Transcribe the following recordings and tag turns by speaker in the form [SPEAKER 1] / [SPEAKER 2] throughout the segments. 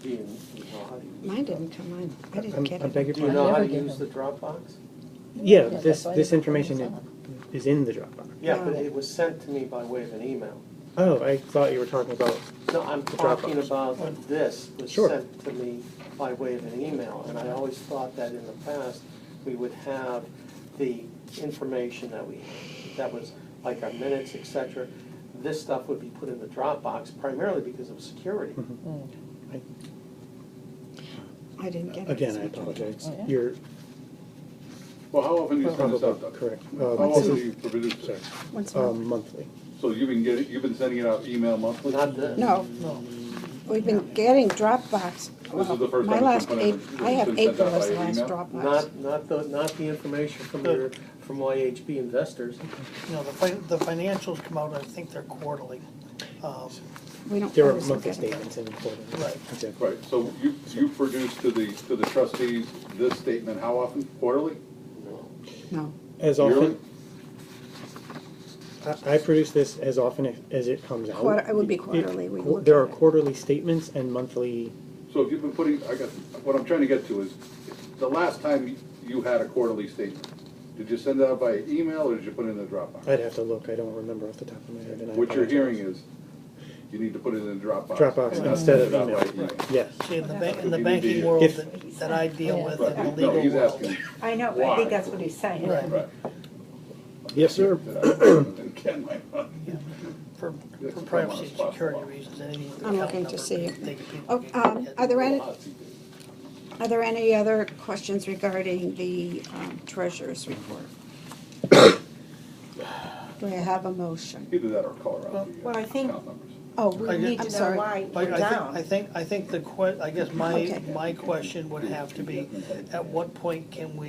[SPEAKER 1] Do you you know how to use?
[SPEAKER 2] Mine didn't come on. I didn't
[SPEAKER 3] I'm-
[SPEAKER 2] get
[SPEAKER 3] I beg
[SPEAKER 2] it.
[SPEAKER 3] your
[SPEAKER 1] Do you
[SPEAKER 3] pardon?
[SPEAKER 1] know how
[SPEAKER 2] Never
[SPEAKER 1] to
[SPEAKER 2] get
[SPEAKER 1] use
[SPEAKER 2] it.
[SPEAKER 1] the Dropbox?
[SPEAKER 3] Yeah,
[SPEAKER 4] Yeah,
[SPEAKER 3] this,
[SPEAKER 4] that's why
[SPEAKER 3] this
[SPEAKER 4] they put it
[SPEAKER 3] information
[SPEAKER 4] on
[SPEAKER 3] is in the Dropbox.
[SPEAKER 1] Yeah, but
[SPEAKER 2] No.
[SPEAKER 1] it was sent to me by way of an email.
[SPEAKER 3] Oh, I thought you were talking about,
[SPEAKER 1] No, I'm
[SPEAKER 3] The
[SPEAKER 1] talking
[SPEAKER 3] Dropbox.
[SPEAKER 1] about this was
[SPEAKER 3] Sure.
[SPEAKER 1] sent to me by way of an email, and I always thought that in the past, we would have the information that we, that was like our minutes, et cetera. This stuff would be put in the Dropbox primarily because of security.
[SPEAKER 3] Mhm.
[SPEAKER 4] Mm.
[SPEAKER 2] I didn't get it.
[SPEAKER 3] again, I apologize.
[SPEAKER 4] Oh, yeah.
[SPEAKER 3] You're
[SPEAKER 5] Well, how often do you send this out,
[SPEAKER 3] probably
[SPEAKER 5] Doug?
[SPEAKER 3] correct.
[SPEAKER 5] How
[SPEAKER 3] Um,
[SPEAKER 5] often do
[SPEAKER 3] This
[SPEAKER 5] you produce
[SPEAKER 3] is,
[SPEAKER 5] this?
[SPEAKER 3] sorry,
[SPEAKER 2] Once more.
[SPEAKER 3] um, monthly.
[SPEAKER 5] So you've been getting, you've been sending it out email monthly?
[SPEAKER 1] Not this.
[SPEAKER 2] No,
[SPEAKER 4] No,
[SPEAKER 2] we've been getting Dropbox.
[SPEAKER 5] This is the first
[SPEAKER 2] My
[SPEAKER 5] time it's
[SPEAKER 2] last
[SPEAKER 5] been put in.
[SPEAKER 2] April, I have
[SPEAKER 5] It's been sent out
[SPEAKER 2] April as
[SPEAKER 5] by
[SPEAKER 2] the last
[SPEAKER 5] email?
[SPEAKER 2] Dropbox.
[SPEAKER 1] Not, not the, not the information from your, from YHB investors.
[SPEAKER 6] You know, the fi- the financials come out, I think they're quarterly. Um,
[SPEAKER 2] We don't
[SPEAKER 3] There are
[SPEAKER 2] always look
[SPEAKER 3] monthly
[SPEAKER 2] at it.
[SPEAKER 3] statements and quarterly.
[SPEAKER 6] Right.
[SPEAKER 3] Exactly.
[SPEAKER 5] Right, so you, you produce to the, to the trustees this statement, how often? Quarterly?
[SPEAKER 2] No,
[SPEAKER 3] As
[SPEAKER 5] Yearly?
[SPEAKER 3] often, I, I produce this as often if- as it comes out.
[SPEAKER 2] Quarter- it would be
[SPEAKER 3] If-
[SPEAKER 2] quarterly, we
[SPEAKER 3] qu-
[SPEAKER 2] look
[SPEAKER 3] There
[SPEAKER 2] at
[SPEAKER 3] are
[SPEAKER 2] it.
[SPEAKER 3] quarterly statements and monthly,
[SPEAKER 5] So if you've been putting, I got, what I'm trying to get to is, the last time you had a quarterly statement, did you send it out by email or did you put it in the Dropbox?
[SPEAKER 3] I'd have to look, I don't remember off the top of my head. and I
[SPEAKER 5] What you're
[SPEAKER 3] apologize.
[SPEAKER 5] hearing is, you need to put it in the Dropbox.
[SPEAKER 3] Dropbox
[SPEAKER 5] and not
[SPEAKER 3] instead
[SPEAKER 5] send
[SPEAKER 3] of
[SPEAKER 5] it out by
[SPEAKER 3] email. Yes.
[SPEAKER 6] See, in the ba- in
[SPEAKER 5] Could
[SPEAKER 6] the
[SPEAKER 5] be
[SPEAKER 6] banking
[SPEAKER 5] the-
[SPEAKER 6] world
[SPEAKER 3] If-
[SPEAKER 6] that that I deal with, in the
[SPEAKER 5] Right,
[SPEAKER 6] legal
[SPEAKER 5] no, he's
[SPEAKER 6] world.
[SPEAKER 5] asking,
[SPEAKER 7] I know, I
[SPEAKER 5] Why?
[SPEAKER 7] think that's what he's saying.
[SPEAKER 6] Right.
[SPEAKER 5] right.
[SPEAKER 3] Yes, sir.
[SPEAKER 5] Again, my mind.
[SPEAKER 6] For
[SPEAKER 5] Yeah,
[SPEAKER 6] for
[SPEAKER 5] it's
[SPEAKER 6] privacy
[SPEAKER 5] almost
[SPEAKER 6] and
[SPEAKER 5] possible.
[SPEAKER 6] security reasons, anything with the
[SPEAKER 2] I'm
[SPEAKER 6] account
[SPEAKER 2] looking to
[SPEAKER 6] number,
[SPEAKER 2] see.
[SPEAKER 6] they could- people
[SPEAKER 2] Oh,
[SPEAKER 6] could
[SPEAKER 2] um,
[SPEAKER 6] get-
[SPEAKER 2] are there any, are there any other questions regarding the um, treasurer's report? Do I have a motion?
[SPEAKER 5] Either that or call around the
[SPEAKER 7] Well, I
[SPEAKER 5] uh,
[SPEAKER 7] think-
[SPEAKER 5] account numbers.
[SPEAKER 2] Oh,
[SPEAKER 6] I
[SPEAKER 2] we
[SPEAKER 6] did-
[SPEAKER 7] We
[SPEAKER 2] need,
[SPEAKER 7] need
[SPEAKER 2] I'm
[SPEAKER 7] to know
[SPEAKER 2] sorry.
[SPEAKER 7] why
[SPEAKER 6] But
[SPEAKER 7] we're down.
[SPEAKER 6] I think, I think, I think the que, I guess my,
[SPEAKER 2] Okay.
[SPEAKER 6] my question would have to be, at what point can we,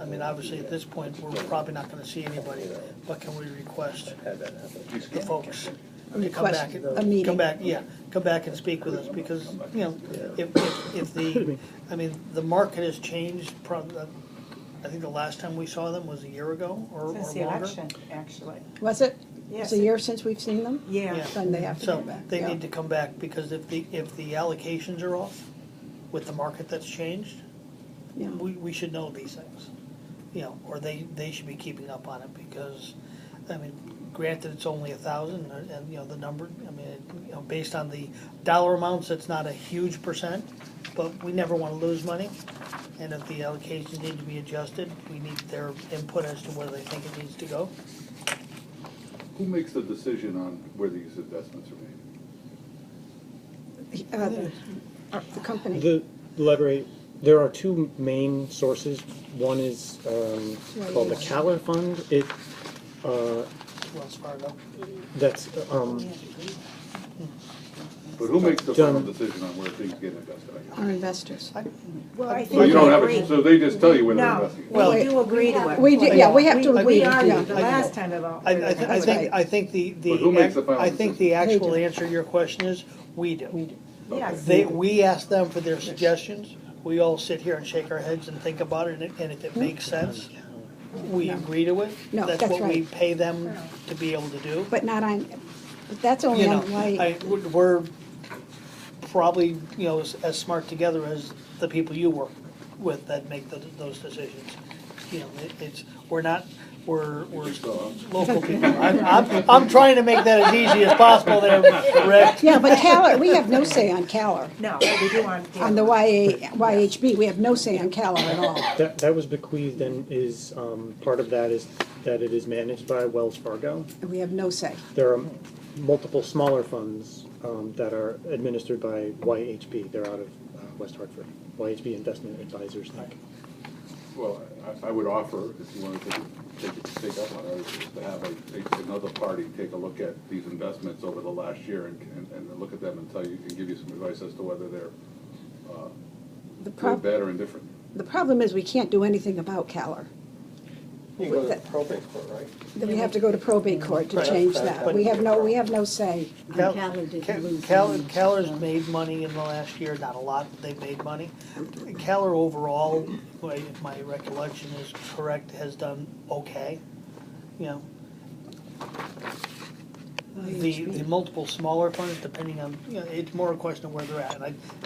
[SPEAKER 6] I mean, obviously, at this point, we're probably not gonna see anybody, but can we request the folks to come
[SPEAKER 2] Request
[SPEAKER 6] back? and-
[SPEAKER 2] a meeting.
[SPEAKER 6] Come back, yeah, come back and speak with us, because, you know, if, if, if the, I mean, the market has changed, prob- I think the last time we saw them was a year ago or or longer.
[SPEAKER 7] Since the election, actually.
[SPEAKER 2] Was it? It's
[SPEAKER 7] Yes.
[SPEAKER 2] a year since we've seen them?
[SPEAKER 7] Yeah.
[SPEAKER 6] Yeah.
[SPEAKER 2] Then they have to
[SPEAKER 6] So
[SPEAKER 2] come back.
[SPEAKER 6] they
[SPEAKER 2] yeah.
[SPEAKER 6] need to come back because if the, if the allocations are off with the market that's changed,
[SPEAKER 2] Yeah.
[SPEAKER 6] we, we should know these things. You know, or they, they should be keeping up on it because, I mean, granted, it's only a thousand and, and, you know, the number, I mean, it- you know, based on the dollar amounts, it's not a huge percent, but we never wanna lose money. And if the allocations need to be adjusted, we need their input as to where they think it needs to go.
[SPEAKER 5] Who makes the decision on where these investments are made?
[SPEAKER 2] Uh, The uh, the company,
[SPEAKER 3] The letter, there are two main sources. One is um, called the Caler Fund. It, uh,
[SPEAKER 6] Wells Fargo.
[SPEAKER 3] that's, um,
[SPEAKER 5] But who makes the
[SPEAKER 3] Done.
[SPEAKER 5] final decision on where things get invested? I guess?
[SPEAKER 2] our investors.
[SPEAKER 6] I-
[SPEAKER 7] Well, I
[SPEAKER 5] So you
[SPEAKER 7] think
[SPEAKER 5] don't
[SPEAKER 7] we
[SPEAKER 5] have, a-
[SPEAKER 7] agree.
[SPEAKER 5] so they just tell you where they're
[SPEAKER 7] No.
[SPEAKER 5] investing?
[SPEAKER 6] Well,
[SPEAKER 7] We do agree to it.
[SPEAKER 2] We do- yeah, we have to agree,
[SPEAKER 7] We
[SPEAKER 2] yeah.
[SPEAKER 7] argued the last time about.
[SPEAKER 6] I, I, thi- I think, I think the,
[SPEAKER 5] But who makes the
[SPEAKER 6] the,
[SPEAKER 5] final
[SPEAKER 6] I think the
[SPEAKER 2] decision?
[SPEAKER 6] actual
[SPEAKER 2] They do.
[SPEAKER 6] answer to your question is, we do.
[SPEAKER 7] Yes.
[SPEAKER 6] They, we ask them for their suggestions, we all sit here and shake our heads and think about it, and and if it makes sense, we agree to it.
[SPEAKER 2] No, that's
[SPEAKER 6] That's what we
[SPEAKER 2] right.
[SPEAKER 6] pay them to be able to do.
[SPEAKER 2] But not on, but that's only
[SPEAKER 6] You know,
[SPEAKER 2] on
[SPEAKER 6] I,
[SPEAKER 2] light.
[SPEAKER 6] we're probably, you know, as, as smart together as the people you work with that make the, those decisions. You know, it, it's, we're not, we're, we're
[SPEAKER 5] um,
[SPEAKER 6] local people. I'm, I'm, I'm trying to make that as easy as possible there, Rick.
[SPEAKER 2] Yeah, but Caler, we have no say on Caler.
[SPEAKER 7] No, we do on.
[SPEAKER 2] On the YA, YHB, we have no say on Caler at all.
[SPEAKER 3] that, that was bequeathed and is, um, part of that is that it is managed by Wells Fargo.
[SPEAKER 2] We have no say.
[SPEAKER 3] There are multiple smaller funds um, that are administered by YHB. They're out of uh, West Hartford. YHB Investment Advisors, Inc.
[SPEAKER 5] Well, I, I would offer, if you wanted to take, it- take up on it, is to have a, a- another party take a look at these investments over the last year and, and, and look at them and tell you, and give you some advice as to whether they're, uh,
[SPEAKER 2] The
[SPEAKER 5] good,
[SPEAKER 2] prob,
[SPEAKER 5] bad, or indifferent.
[SPEAKER 2] the problem is we can't do anything about Caler.
[SPEAKER 1] You can go to the probate court, right?
[SPEAKER 2] Then we have to go to probate court to
[SPEAKER 6] Right.
[SPEAKER 2] change that. We have no, we have no say.
[SPEAKER 6] Cal-
[SPEAKER 4] Keller didn't
[SPEAKER 6] Cal-
[SPEAKER 4] lose
[SPEAKER 6] Cal-
[SPEAKER 4] any,
[SPEAKER 6] Caller's
[SPEAKER 4] so.
[SPEAKER 6] made money in the last year, not a lot, but they've made money. Keller overall, if my- if my recollection is correct, has done okay, you know.
[SPEAKER 4] Oh,
[SPEAKER 6] The, the multiple smaller funds, depending on, you know, it's more a question of where they're at. And I,